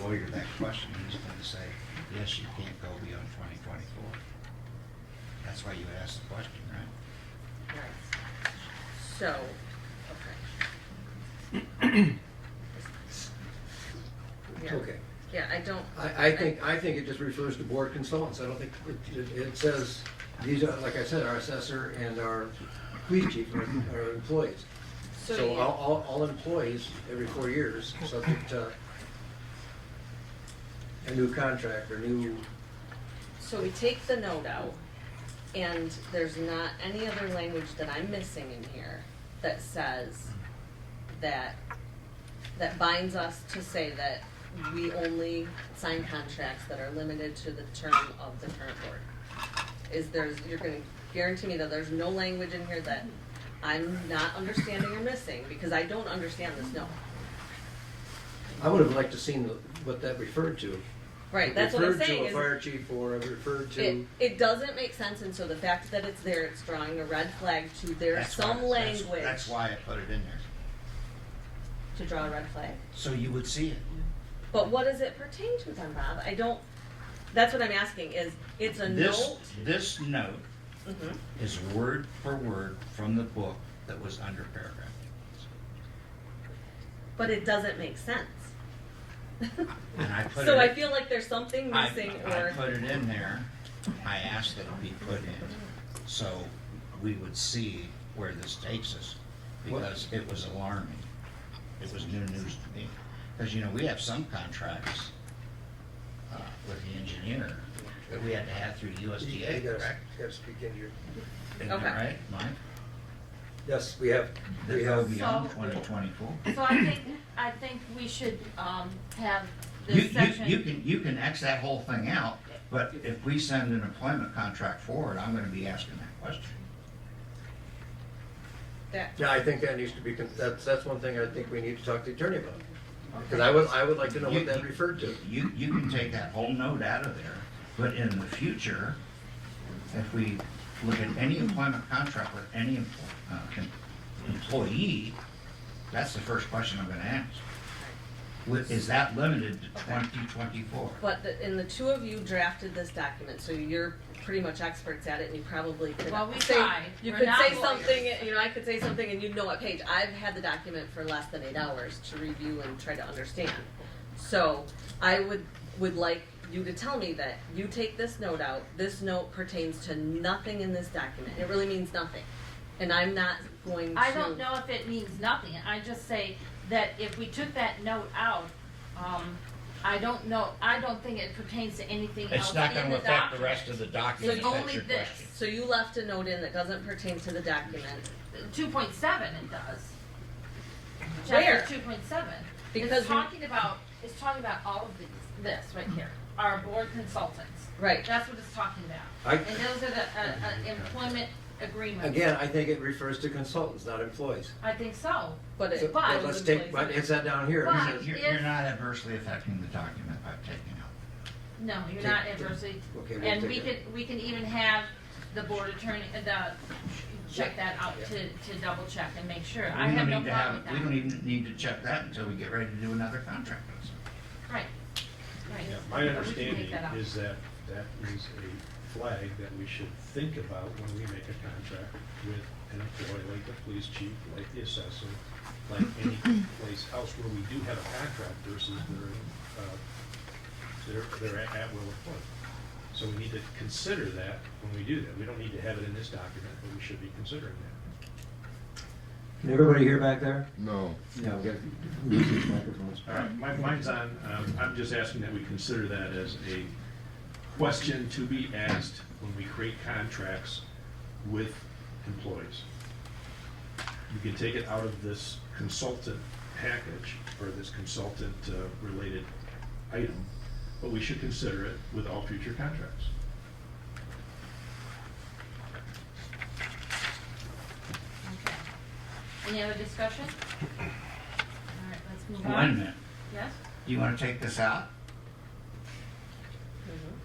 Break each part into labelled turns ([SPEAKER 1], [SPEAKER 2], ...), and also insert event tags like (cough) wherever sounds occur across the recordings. [SPEAKER 1] lawyer that question, he's going to say, yes, you can't go beyond twenty twenty-four. That's why you asked the question, right?
[SPEAKER 2] Right. So, okay.
[SPEAKER 3] It's
[SPEAKER 2] Yeah.
[SPEAKER 3] okay.
[SPEAKER 2] Yeah, I don't.
[SPEAKER 3] I, I think, I think it just refers to board consultants. I don't think, it, it- it says, these are, like I said, our assessor and our police chief are, are employees. So
[SPEAKER 2] you-
[SPEAKER 3] all, all, all employees, every four years, subject to a new contract or new,
[SPEAKER 2] So we take the note out, and there's not any other language that I'm missing in here that says that, that binds us to say that we only sign contracts that are limited to the term of the current board. Is there's, you're gonna guarantee me that there's no language in here that I'm not understanding or missing, because I don't understand this note.
[SPEAKER 3] I would have liked to seen what that referred to.
[SPEAKER 2] Right, that's what I'm saying
[SPEAKER 3] Referred to a
[SPEAKER 2] is-
[SPEAKER 3] fire chief or
[SPEAKER 2] It,
[SPEAKER 3] referred to,
[SPEAKER 2] it doesn't make sense, and so the fact that it's there, it's drawing a red flag to there's
[SPEAKER 1] That's why-
[SPEAKER 2] some
[SPEAKER 1] that's-
[SPEAKER 2] language
[SPEAKER 1] That's why I put it in there,
[SPEAKER 2] to draw a red flag.
[SPEAKER 1] so you would see it.
[SPEAKER 2] But what does it pertain to then, Bob? I don't, that's what I'm asking, is it's a
[SPEAKER 1] This,
[SPEAKER 2] note?
[SPEAKER 1] this note
[SPEAKER 2] Mhm.
[SPEAKER 1] is word for word from the book that was under paragraph.
[SPEAKER 2] But it doesn't make sense. (laughs)
[SPEAKER 1] And I put it.
[SPEAKER 2] So I feel like there's something
[SPEAKER 1] I-
[SPEAKER 2] missing
[SPEAKER 1] I
[SPEAKER 2] or,
[SPEAKER 1] put it in there, I asked that it be put in, so we would see where this takes us, because it was alarming. It was new news to me, because, you know, we have some contracts uh, with the engineer that we had to have through
[SPEAKER 3] you gotta,
[SPEAKER 1] USDA,
[SPEAKER 3] you
[SPEAKER 1] correct?
[SPEAKER 3] gotta speak into your,
[SPEAKER 1] Isn't that
[SPEAKER 2] Okay.
[SPEAKER 1] right, Mike?
[SPEAKER 3] yes, we have,
[SPEAKER 1] That
[SPEAKER 3] we
[SPEAKER 1] go
[SPEAKER 3] have,
[SPEAKER 1] beyond
[SPEAKER 4] So-
[SPEAKER 1] twenty twenty-four?
[SPEAKER 4] So I think, I think we should, um, have
[SPEAKER 1] You,
[SPEAKER 4] this
[SPEAKER 1] you,
[SPEAKER 4] section.
[SPEAKER 1] you can, you can X that whole thing out, but if we send an employment contract forward, I'm gonna be asking that question.
[SPEAKER 2] that,
[SPEAKER 3] yeah, I think that needs to be, con- that's, that's one thing I think we need to talk to the attorney about. Because I would, I would like to know what that referred to.
[SPEAKER 1] You, you can take that whole note out of there, but in the future, if we look at any employment contract with any empl- uh, em- employee, that's the first question I'm gonna ask. Wi- Is that limited to twenty twenty-four?
[SPEAKER 2] but the, and the two of you drafted this document, so you're pretty much experts at it, and you probably could.
[SPEAKER 4] Well, we
[SPEAKER 2] say-
[SPEAKER 4] tried.
[SPEAKER 2] You
[SPEAKER 4] We're
[SPEAKER 2] could
[SPEAKER 4] not
[SPEAKER 2] say
[SPEAKER 4] lawyers.
[SPEAKER 2] something, you know, I could say something and you'd know what page. I've had the document for less than eight hours to review and try to understand. So I would, would like you to tell me that you take this note out, this note pertains to nothing in this document. It really means nothing. And I'm not going to.
[SPEAKER 4] I don't know if it means nothing, I just say that if we took that note out, um, I don't know, I don't think it pertains to anything else
[SPEAKER 5] It's
[SPEAKER 4] in
[SPEAKER 5] not gonna
[SPEAKER 4] the
[SPEAKER 5] affect the
[SPEAKER 4] document.
[SPEAKER 5] rest of the document,
[SPEAKER 4] It's
[SPEAKER 5] if
[SPEAKER 4] only
[SPEAKER 5] that's your
[SPEAKER 4] this.
[SPEAKER 5] question.
[SPEAKER 2] So you left a note in that doesn't pertain to the document.
[SPEAKER 4] Two point seven it does.
[SPEAKER 2] Where?
[SPEAKER 4] Chapter two point seven.
[SPEAKER 2] Because
[SPEAKER 4] It's
[SPEAKER 2] we-
[SPEAKER 4] talking about, it's talking about all of these, this right here, our board consultants.
[SPEAKER 2] Right.
[SPEAKER 4] That's what it's talking about.
[SPEAKER 3] I-
[SPEAKER 4] And those are the, uh, uh, employment agreements.
[SPEAKER 3] Again, I think it refers to consultants, not employees.
[SPEAKER 4] I think so.
[SPEAKER 2] But
[SPEAKER 3] So,
[SPEAKER 2] it.
[SPEAKER 4] But-
[SPEAKER 3] but let's take, but it's that down here.
[SPEAKER 4] But-
[SPEAKER 3] It says-
[SPEAKER 1] You're, you're not adversely affecting the document by taking out.
[SPEAKER 4] No, you're
[SPEAKER 3] Take-
[SPEAKER 4] not
[SPEAKER 3] take-
[SPEAKER 4] adversely,
[SPEAKER 3] okay, we'll
[SPEAKER 4] and
[SPEAKER 3] take
[SPEAKER 4] we
[SPEAKER 3] it.
[SPEAKER 4] could, we can even have the board attorney, uh, the, check that out
[SPEAKER 3] Yeah.
[SPEAKER 4] to, to double check and make sure. I
[SPEAKER 1] We
[SPEAKER 4] have
[SPEAKER 1] don't
[SPEAKER 4] no
[SPEAKER 1] need to have,
[SPEAKER 4] problem with that.
[SPEAKER 1] we don't even need to check that until we get ready to do another contract.
[SPEAKER 4] Right, right.
[SPEAKER 6] Yeah, My
[SPEAKER 4] We can take
[SPEAKER 6] understanding
[SPEAKER 4] that out.
[SPEAKER 6] is that that is a flag that we should think about when we make a contract with an employee, like the police chief, like the assessor, like any place else where we do have a contract versus their, uh, their, their at- at-will employment. So we need to consider that when we do that. We don't need to have it in this document, but we should be considering that.
[SPEAKER 3] Can everybody hear back there?
[SPEAKER 7] No.
[SPEAKER 3] No.
[SPEAKER 6] All right, my, mine's on, um, I'm just asking that we consider that as a question to be asked when we create contracts with employees. You can take it out of this consultant package or this consultant, uh, related item, but we should consider it with all future contracts.
[SPEAKER 4] Okay. Any other discussion? All right, let's move
[SPEAKER 1] Wait
[SPEAKER 4] on.
[SPEAKER 1] a minute,
[SPEAKER 4] Yes?
[SPEAKER 1] you wanna take this out?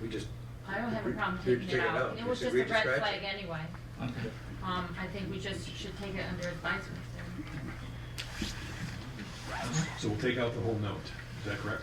[SPEAKER 3] We just,
[SPEAKER 4] I don't have a
[SPEAKER 3] We-
[SPEAKER 4] problem
[SPEAKER 3] we
[SPEAKER 4] taking
[SPEAKER 3] take
[SPEAKER 4] it
[SPEAKER 3] it
[SPEAKER 4] out.
[SPEAKER 3] out.
[SPEAKER 4] It
[SPEAKER 3] We
[SPEAKER 4] was
[SPEAKER 3] should
[SPEAKER 4] just a red
[SPEAKER 3] re-describe it.
[SPEAKER 4] flag anyway.
[SPEAKER 1] Okay.
[SPEAKER 4] Um, I think we just should take it under advisement then.
[SPEAKER 6] So we'll take out the whole note, is that correct?